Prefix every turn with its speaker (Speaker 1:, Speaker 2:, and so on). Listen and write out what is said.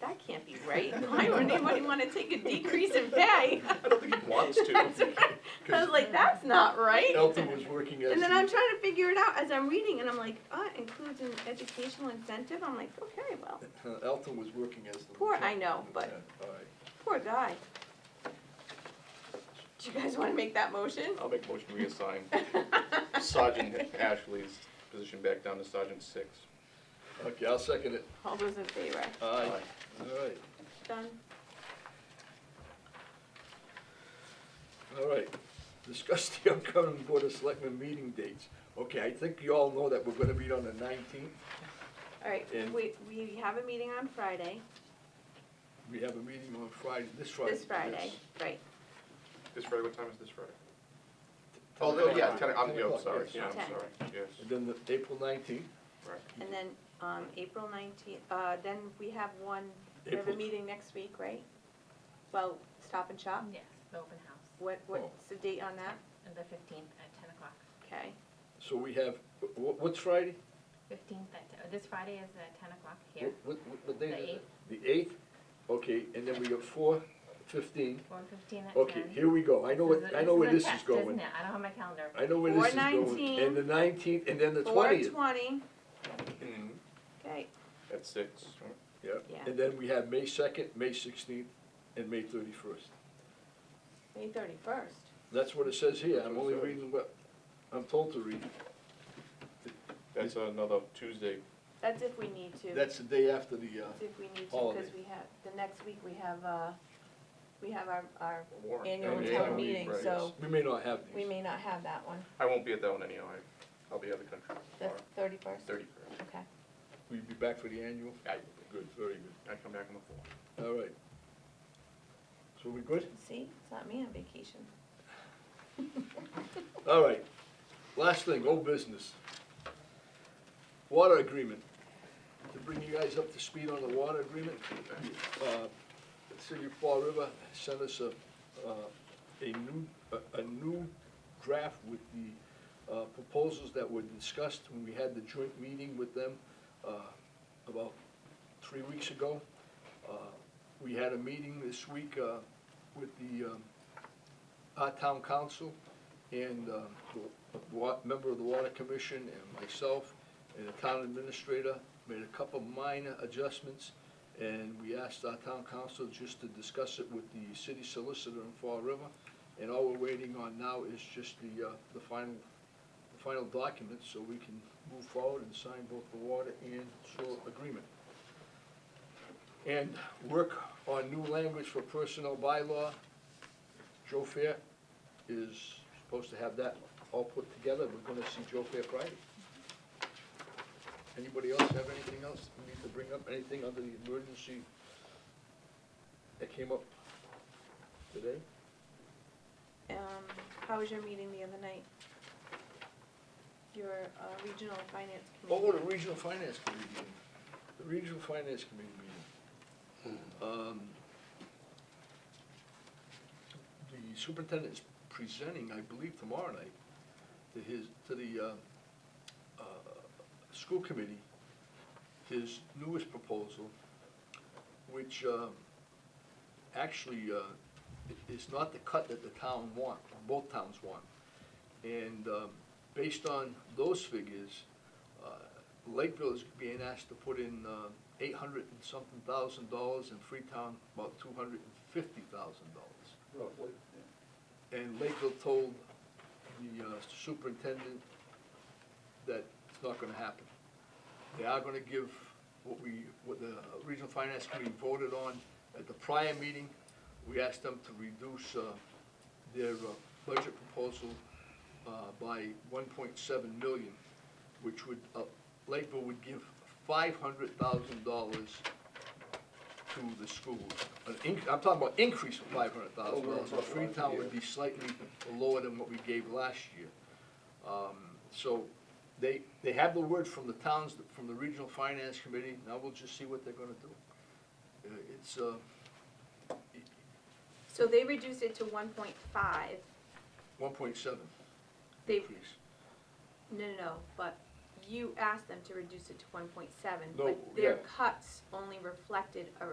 Speaker 1: that can't be right. Why would anybody want to take a decrease in pay?
Speaker 2: I don't think he wants to.
Speaker 1: That's right. I was like, that's not right.
Speaker 2: Elton was working as.
Speaker 1: And then
Speaker 2: the-
Speaker 1: I'm trying to figure it out as I'm reading, and I'm like, oh, it includes an educational incentive. I'm like, okay, well,
Speaker 2: uh, Elton was working as the.
Speaker 1: Poor, I
Speaker 2: lieutenant-
Speaker 1: know, but-
Speaker 2: lieutenant. All right,
Speaker 1: poor guy. Do you guys want to make that motion?
Speaker 3: I'll make a motion to reassign Sergeant Ashley's position back down to Sergeant Six.
Speaker 2: okay, I'll second it.
Speaker 1: All those in favor?
Speaker 2: Aye. All right,
Speaker 1: Done.
Speaker 2: all right. Discuss the upcoming Board of Selectmen meeting dates. Okay, I think you all know that we're gonna meet on the nineteenth.
Speaker 1: All right,
Speaker 2: And-
Speaker 1: we, we have a meeting on Friday,
Speaker 2: We have a meeting on Friday, this Friday.
Speaker 1: this Friday,
Speaker 2: yes.
Speaker 1: right.
Speaker 3: This Friday, what time is this Friday?
Speaker 2: Ten
Speaker 3: Oh, yeah,
Speaker 2: o'clock.
Speaker 3: ten, I'm, yeah, I'm
Speaker 2: o'clock,
Speaker 3: sorry,
Speaker 2: yes.
Speaker 3: yeah, I'm
Speaker 1: Ten.
Speaker 3: sorry, yes,
Speaker 2: And then the April nineteenth,
Speaker 3: right.
Speaker 1: And then, um, April nineteenth, uh, then we have one, we have a
Speaker 2: April-
Speaker 1: meeting next week, right? Well, Stop and Shop,
Speaker 4: Yes, the open house,
Speaker 1: what, what's the date on that?
Speaker 4: and the fifteenth at ten o'clock.
Speaker 1: Okay,
Speaker 2: so we have, wh- wh- what's Friday?
Speaker 4: Fifteenth at, te- this Friday is at ten o'clock
Speaker 2: Wh-
Speaker 4: here,
Speaker 2: wh- wh- What day
Speaker 4: The
Speaker 2: is it? The eighth, okay, and then we got four fifteen.
Speaker 4: four fifteen at ten.
Speaker 2: Okay, here we go, I know
Speaker 4: This is
Speaker 2: what,
Speaker 4: a-
Speaker 2: I know where this
Speaker 4: a
Speaker 2: is
Speaker 4: test,
Speaker 2: going.
Speaker 4: isn't it? I don't have my calendar.
Speaker 2: I know where this is going.
Speaker 1: 419.
Speaker 2: And the nineteenth, and then the
Speaker 1: four
Speaker 2: twentieth.
Speaker 1: twenty,
Speaker 2: Mm-hmm.
Speaker 3: Mhm.
Speaker 1: okay,
Speaker 3: At six, right?
Speaker 2: Yeah,
Speaker 1: Yeah.
Speaker 2: and then we have May second, May sixteenth, and May thirty-first.
Speaker 1: May thirty-first.
Speaker 2: That's what it says here, I'm only
Speaker 3: Sorry.
Speaker 2: reading what I'm told to read.
Speaker 3: that's another Tuesday,
Speaker 1: That's if we need to.
Speaker 2: That's the day after the, uh,
Speaker 1: That's If we need to, because
Speaker 2: Holiday.
Speaker 1: we have, the next week we have, uh, we have our, our
Speaker 3: warrant.
Speaker 1: annual
Speaker 2: Annual
Speaker 1: town
Speaker 2: town
Speaker 1: meeting,
Speaker 3: right.
Speaker 1: so
Speaker 2: we may not have
Speaker 1: we
Speaker 2: these.
Speaker 1: may not have that one,
Speaker 3: I won't be at that one anyhow, I- I'll be out of the country
Speaker 1: the
Speaker 3: tomorrow,
Speaker 1: thirty-first,
Speaker 3: thirty first.
Speaker 1: okay.
Speaker 2: Will you be back for the annual?
Speaker 3: I will be,
Speaker 2: Good, very good,
Speaker 3: I come back on the fourth.
Speaker 2: all right. So we good?
Speaker 1: See, it's not me on vacation.
Speaker 2: All right, last thing, old business. Water agreement. To bring you guys up to speed on the water agreement, uh, the City of Fall River sent us a, uh, a new, a- a new draft with the uh, proposals that were discussed when we had the joint meeting with them uh, about three weeks ago. Uh, We had a meeting this week uh, with the um, our town council and uh, the wa- member of the Water Commission and myself and the town administrator made a couple minor adjustments. And we asked our town council just to discuss it with the city solicitor in Fall River. And all we're waiting on now is just the, uh, the final, the final documents so we can move forward and sign both the water and sewer agreement. And work on new language for personnel bylaw. Joe Fair is supposed to have that all put together, we're gonna see Joe Fair Friday. Anybody else have anything else we need to bring up, anything under the emergency that came up today?
Speaker 1: Um, how was your meeting the other night? Your, uh, regional finance committee?
Speaker 2: Oh, the regional finance committee meeting, the regional finance committee meeting. Um, The superintendent's presenting, I believe, tomorrow night to his, to the, uh, uh, school committee, his newest proposal, which, um, actually, uh, i- is not the cut that the town want, both towns want. And, um, based on those figures, uh, Lakeville is being asked to put in uh, eight hundred and something thousand dollars, and Freetown about two hundred and fifty thousand dollars. And Lakeville told the uh, superintendent that it's not gonna happen. They are gonna give what we, what the regional finance committee voted on at the prior meeting. We asked them to reduce uh, their uh, budget proposal uh, by one point seven million, which would, uh, Lakeville would give five hundred thousand dollars to the school. An inc- I'm talking about increase of five hundred thousand dollars, so Freetown would be slightly lower than what we gave last year. Um, So they, they have the word from the towns, from the regional finance committee, now we'll just see what they're gonna do. Uh, It's, uh,
Speaker 1: So they reduced it to one point five,
Speaker 2: one point seven
Speaker 1: they,
Speaker 2: increase.
Speaker 1: no, no, no, but you asked them to reduce it to one point seven,
Speaker 2: No,
Speaker 1: but their
Speaker 2: yeah.
Speaker 1: cuts only reflected a